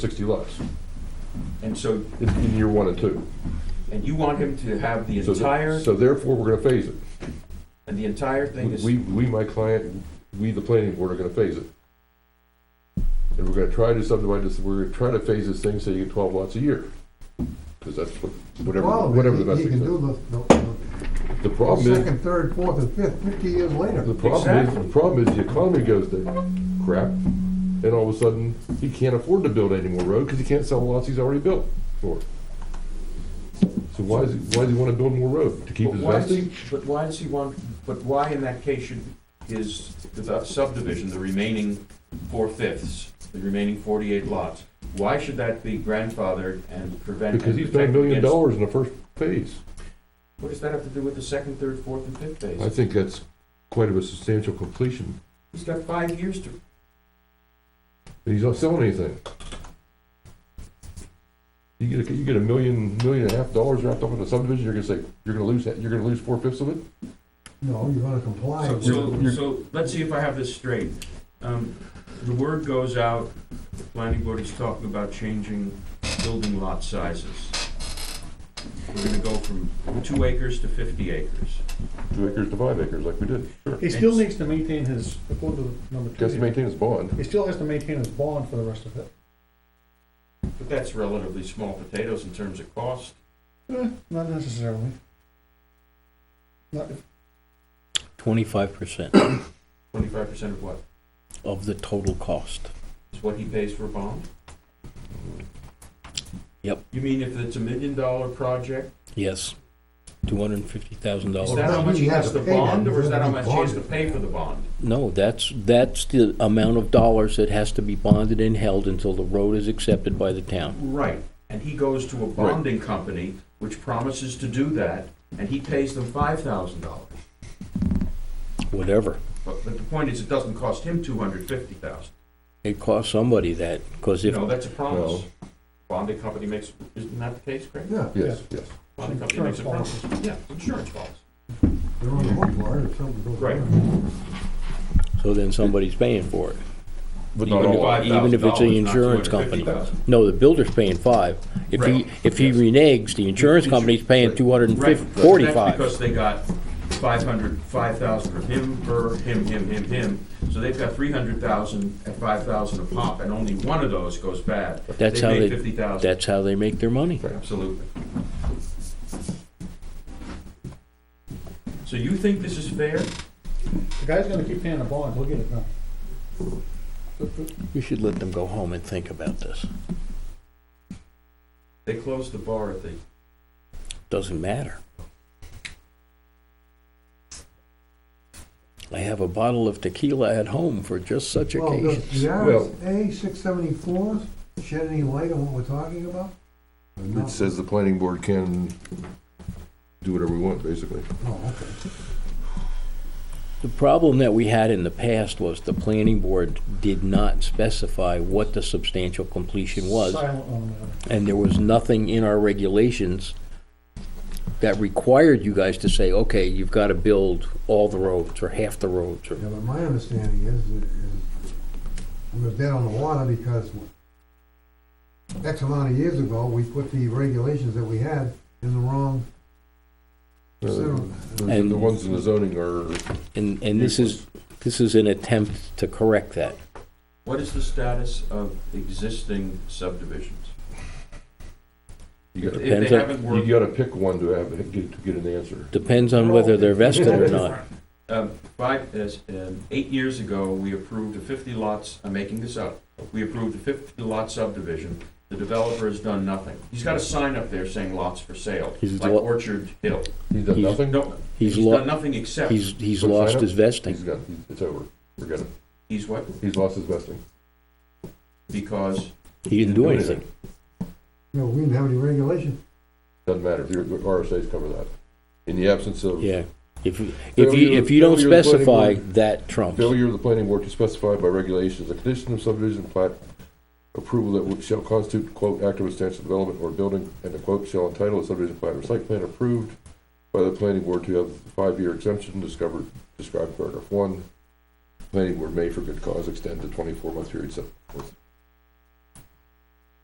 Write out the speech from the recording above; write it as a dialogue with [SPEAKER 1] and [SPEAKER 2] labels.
[SPEAKER 1] sixty lots
[SPEAKER 2] And so,
[SPEAKER 1] in, in year one and two.
[SPEAKER 2] and you want him to have the
[SPEAKER 1] So th-
[SPEAKER 2] entire,
[SPEAKER 1] So therefore, we're gonna phase it.
[SPEAKER 2] and the entire thing is,
[SPEAKER 1] We, we, my client, we, the planning board, are gonna phase it. And we're gonna try to subdivide this, we're gonna try to phase this thing so you get twelve lots a year. Cause that's what, whatever,
[SPEAKER 3] Well,
[SPEAKER 1] whatever the
[SPEAKER 3] he-
[SPEAKER 1] best
[SPEAKER 3] He can
[SPEAKER 1] thing
[SPEAKER 3] do the- the,
[SPEAKER 1] The
[SPEAKER 3] the
[SPEAKER 1] problem is,
[SPEAKER 3] second, third, fourth, and fifth, fifty years later.
[SPEAKER 1] the problem is,
[SPEAKER 2] Exactly.
[SPEAKER 1] the problem is the economy goes to crap. And all of a sudden, he can't afford to build any more road, cause he can't sell the lots he's already built for. So why is, he- why does he wanna build more road? To keep
[SPEAKER 2] but
[SPEAKER 1] his
[SPEAKER 2] why, does he-
[SPEAKER 1] vesting?
[SPEAKER 2] but why does he want, but why in that case should, is the subdivision, the remaining four-fifths, the remaining forty-eight lots, why should that be grandfathered and prevent?
[SPEAKER 1] Because
[SPEAKER 2] and
[SPEAKER 1] he's
[SPEAKER 2] protect
[SPEAKER 1] paying a million
[SPEAKER 2] against-
[SPEAKER 1] dollars in the first phase.
[SPEAKER 2] What does that have to do with the second, third, fourth, and fifth
[SPEAKER 1] I
[SPEAKER 2] phase?
[SPEAKER 1] think that's quite of a substantial completion.
[SPEAKER 2] He's got five years to,
[SPEAKER 1] He's not selling anything. You get, a- you get a million, million and a half dollars wrapped up in a subdivision, you're gonna say, you're gonna lose, that- you're gonna lose four fifths of it?
[SPEAKER 3] No, you're gonna comply.
[SPEAKER 2] So,
[SPEAKER 3] with-
[SPEAKER 2] so, so, let's see if I have this straight. Um, the word goes out, the planning board is talking about changing building lot sizes. We're gonna go from two acres to fifty acres.
[SPEAKER 1] Two acres to five acres, like we did, sure.
[SPEAKER 4] He still needs to maintain his, according to number two,
[SPEAKER 1] Guess he
[SPEAKER 4] here,
[SPEAKER 1] maintains bond.
[SPEAKER 4] he still has to maintain his bond for the rest of it.
[SPEAKER 2] But that's relatively small potatoes in terms of cost.
[SPEAKER 4] Eh, Not necessarily. Not, if-
[SPEAKER 5] Twenty-five percent
[SPEAKER 2] Twenty-five percent of what?
[SPEAKER 5] of the total cost.
[SPEAKER 2] Is what he pays for a bond?
[SPEAKER 5] Yep.
[SPEAKER 2] You mean if it's a million dollar project,
[SPEAKER 5] Yes, two hundred and fifty thousand
[SPEAKER 2] is
[SPEAKER 5] dollars.
[SPEAKER 2] that how much he
[SPEAKER 3] You have
[SPEAKER 2] has
[SPEAKER 3] to
[SPEAKER 2] to
[SPEAKER 3] pay them,
[SPEAKER 2] bond, or is
[SPEAKER 3] you're
[SPEAKER 2] that how
[SPEAKER 3] gonna
[SPEAKER 2] much
[SPEAKER 3] be
[SPEAKER 2] he has to
[SPEAKER 3] bonded.
[SPEAKER 2] pay for the bond?
[SPEAKER 5] No, that's, that's the amount of dollars that has to be bonded and held until the road is accepted by the town.
[SPEAKER 2] Right, and he goes to a bonding company, which promises to do that, and he pays them five thousand dollars.
[SPEAKER 5] Whatever.
[SPEAKER 2] But, but the point is, it doesn't cost him two hundred fifty thousand.
[SPEAKER 5] It costs somebody that, because
[SPEAKER 2] You
[SPEAKER 5] if,
[SPEAKER 2] know, that's a promise.
[SPEAKER 1] No.
[SPEAKER 2] Bonding company makes, isn't that the case, Craig?
[SPEAKER 3] Yeah,
[SPEAKER 1] Yes, yes.
[SPEAKER 2] Bonding company makes a
[SPEAKER 4] Insurance
[SPEAKER 2] promise, yeah, insurance policy.
[SPEAKER 3] they're on the hook for it if something goes
[SPEAKER 2] Right.
[SPEAKER 3] wrong.
[SPEAKER 5] so then somebody's paying for it.
[SPEAKER 1] But
[SPEAKER 5] not all. Even if it's an insurance company. No, the builder's paying five. If he,
[SPEAKER 2] Right.
[SPEAKER 5] if he reneges, the insurance company's paying two hundred and
[SPEAKER 2] Right,
[SPEAKER 5] fifty,
[SPEAKER 2] but that's
[SPEAKER 5] forty-five.
[SPEAKER 2] because they got five hundred, five thousand of him, her, him, him, him, him, so they've got three hundred thousand at five thousand a pop, and only one of those goes bad.
[SPEAKER 5] That's how they,
[SPEAKER 2] fifty thousand.
[SPEAKER 5] that's how they make their money.
[SPEAKER 2] Absolutely. So you think this is fair?
[SPEAKER 4] the guy's gonna keep paying the bond, he'll get it done.
[SPEAKER 5] We should let them go home and think about this.
[SPEAKER 2] They closed the bar at the,
[SPEAKER 5] Doesn't matter. I have a bottle of tequila at home for just such
[SPEAKER 3] Well, does
[SPEAKER 5] occasions.
[SPEAKER 3] the
[SPEAKER 1] Well-
[SPEAKER 3] RSA six seventy-four shed any light on what we're talking about?
[SPEAKER 1] It says the planning board can do whatever we want, basically.
[SPEAKER 3] Oh, okay.
[SPEAKER 5] The problem that we had in the past was the planning board did not specify what the substantial completion was,
[SPEAKER 4] Silent on
[SPEAKER 5] and there was nothing in our regulations that required you guys to say, okay, you've got to build all the roads or half the roads or
[SPEAKER 3] Yeah, but my understanding is, that- is we were dead on the water because X amount of years ago, we put the regulations that we had in the wrong.
[SPEAKER 1] Uh, The
[SPEAKER 5] And-
[SPEAKER 1] the ones in the zoning are,
[SPEAKER 5] And, and this is, this is an attempt to correct that.
[SPEAKER 2] what is the status of existing subdivisions?
[SPEAKER 1] you
[SPEAKER 2] If
[SPEAKER 1] gotta,
[SPEAKER 2] they
[SPEAKER 5] Depends on-
[SPEAKER 2] haven't
[SPEAKER 1] you
[SPEAKER 2] worked,
[SPEAKER 1] gotta pick one to have, get, to get an answer.
[SPEAKER 5] Depends on whether they're vested or not.
[SPEAKER 2] um, five, as, um, eight years ago, we approved a fifty lots, I'm making this up. We approved a fifty lot subdivision. The developer has done nothing. He's got a sign up there saying lots for sale,
[SPEAKER 5] He's
[SPEAKER 2] like
[SPEAKER 5] lo-
[SPEAKER 2] Orchard Hill.
[SPEAKER 1] He's done
[SPEAKER 5] He's-
[SPEAKER 1] nothing?
[SPEAKER 2] No,
[SPEAKER 5] He's
[SPEAKER 2] he's
[SPEAKER 5] lo-
[SPEAKER 2] done nothing except,
[SPEAKER 5] He's, he's
[SPEAKER 1] What's
[SPEAKER 5] lost
[SPEAKER 1] that?
[SPEAKER 5] his
[SPEAKER 1] He's
[SPEAKER 5] vesting.
[SPEAKER 1] got, it's over, forget it.
[SPEAKER 2] he's what?
[SPEAKER 1] He's lost his vesting.
[SPEAKER 2] Because
[SPEAKER 5] He didn't do anything.
[SPEAKER 3] No, we didn't have any regulation.
[SPEAKER 1] Doesn't matter, the the RSA's cover that. In the absence of
[SPEAKER 5] Yeah. If, you- if
[SPEAKER 1] Failure-
[SPEAKER 5] you, if you don't
[SPEAKER 1] failure of the
[SPEAKER 5] specify,
[SPEAKER 1] planning
[SPEAKER 5] that trumps.
[SPEAKER 1] failure of the planning board to specify by regulations a condition of subdivision plat approval that would- shall constitute, quote, active substantial development or building, and the quote shall entitle a subdivision plat or site plan approved by the planning board to have five-year exemption discovered, described in paragraph one. Planning board may for good cause extend the twenty-four month period set forth